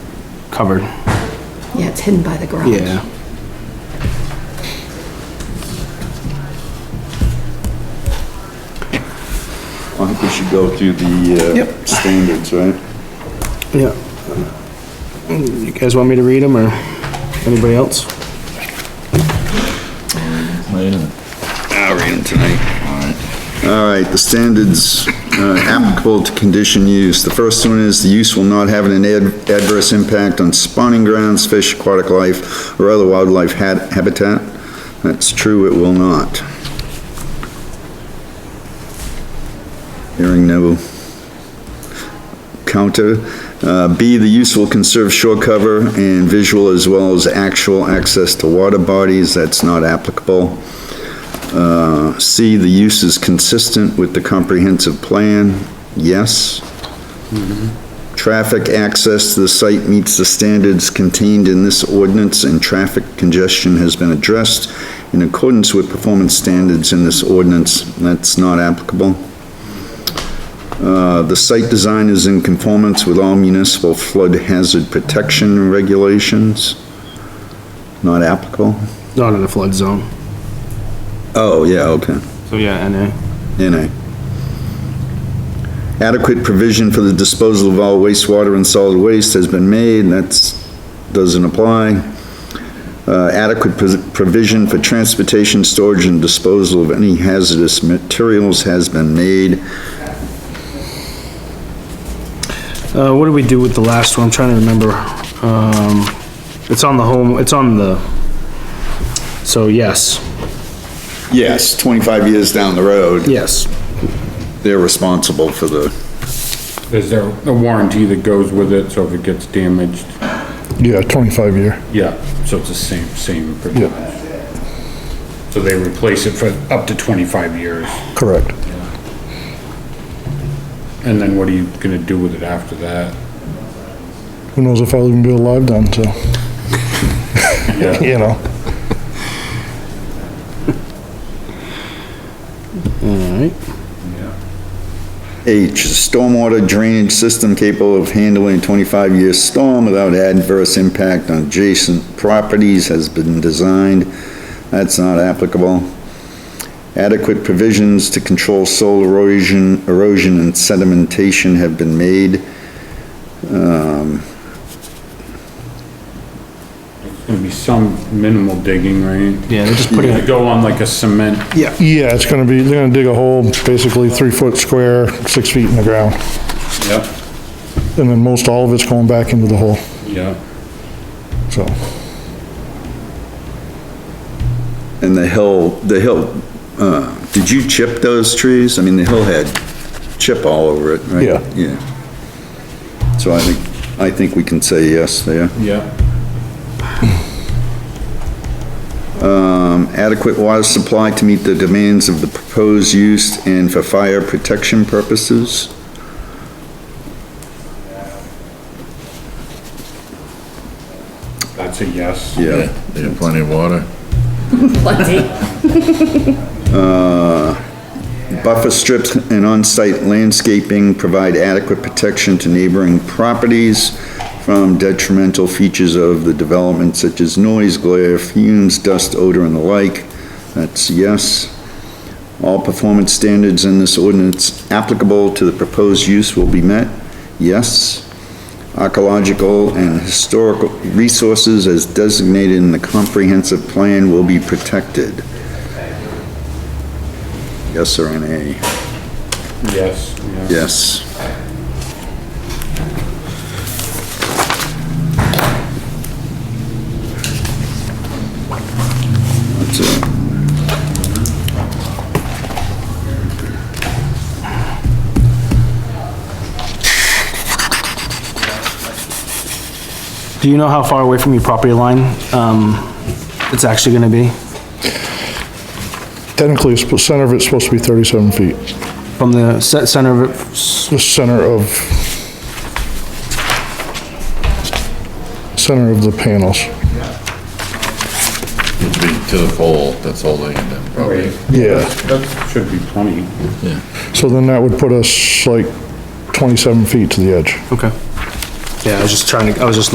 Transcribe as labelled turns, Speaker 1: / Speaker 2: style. Speaker 1: covered.
Speaker 2: Yeah, it's hidden by the garage.
Speaker 1: Yeah.
Speaker 3: I think we should go through the uh,
Speaker 1: Yep.
Speaker 3: standards, right?
Speaker 1: Yeah. You guys want me to read them or anybody else?
Speaker 4: Wait a minute.
Speaker 3: I'll read them tonight. All right, the standards uh, applicable to condition use. The first one is the use will not have an ad- adverse impact on spawning grounds, fish, aquatic life, or other wildlife ha- habitat. That's true, it will not. Hearing no counter. Uh, B, the use will conserve shore cover and visual as well as actual access to water bodies. That's not applicable. C, the use is consistent with the comprehensive plan, yes. Traffic access to the site meets the standards contained in this ordinance and traffic congestion has been addressed in accordance with performance standards in this ordinance, that's not applicable. Uh, the site design is in conformance with all municipal flood hazard protection regulations, not applicable.
Speaker 1: Not in a flood zone.
Speaker 3: Oh, yeah, okay.
Speaker 1: So yeah, NA.
Speaker 3: NA. Adequate provision for the disposal of all wastewater and solid waste has been made, that's, doesn't apply. Uh, adequate pos- provision for transportation, storage, and disposal of any hazardous materials has been made.
Speaker 1: Uh, what did we do with the last one? I'm trying to remember. Um, it's on the home, it's on the, so yes,
Speaker 3: Yes, 25 years down the road,
Speaker 1: yes.
Speaker 3: they're responsible for the,
Speaker 5: Is there a warranty that goes with it, so if it gets damaged?
Speaker 6: Yeah, 25 year.
Speaker 5: Yeah, so it's the same, same pretty
Speaker 6: Yeah.
Speaker 5: much. So they replace it for up to twenty-five years,
Speaker 6: Correct.
Speaker 5: and then what are you gonna do with it after that?
Speaker 6: Who knows if I'll even be alive then, so,
Speaker 5: Yeah.
Speaker 6: you know?
Speaker 1: Alright.
Speaker 3: H, stormwater drainage system capable of handling a 25-year storm without adverse impact on adjacent properties has been designed. That's not applicable. Adequate provisions to control soil erosion, erosion and sedimentation have been made.
Speaker 5: Gonna be some minimal digging, right?
Speaker 1: Yeah, they're just putting,
Speaker 5: Gonna go on like a cement,
Speaker 6: Yeah, it's gonna be, they're gonna dig a hole basically three foot square, six feet in the ground.
Speaker 5: yep,
Speaker 6: And then most all of it's going back into the hole,
Speaker 5: yep.
Speaker 6: so.
Speaker 3: And the hill, the hill, uh, did you chip those trees? I mean, the hill had chip all over it, right?
Speaker 6: Yeah.
Speaker 3: Yeah. So I think, I think we can say yes there.
Speaker 5: Yep.
Speaker 3: um, adequate water supply to meet the demands of the proposed use and for fire protection purposes.
Speaker 5: That's a yes.
Speaker 3: Yeah.
Speaker 4: They have plenty of water.
Speaker 3: Uh, Buffer strips and on-site landscaping provide adequate protection to neighboring properties from detrimental features of the development such as noise, glare, fumes, dust, odor, and the like. That's yes. All performance standards in this ordinance applicable to the proposed use will be met. Yes. Archaeological and historical resources as designated in the comprehensive plan will be protected. Yes or nay?
Speaker 5: Yes, yeah.
Speaker 3: Yes. That's it.
Speaker 1: do you know how far away from your property line, um, it's actually gonna be?
Speaker 6: Technically, it's- the center of it's supposed to be 37 feet.
Speaker 1: From the set center of it, s-
Speaker 6: The center of, center of the panels.
Speaker 4: It'd be to the pole, that's all they can do, probably.
Speaker 6: Yeah.
Speaker 5: That should be plenty.
Speaker 6: So then that would put us like 27 feet to the edge.
Speaker 1: okay. Yeah, I was just trying to, I was just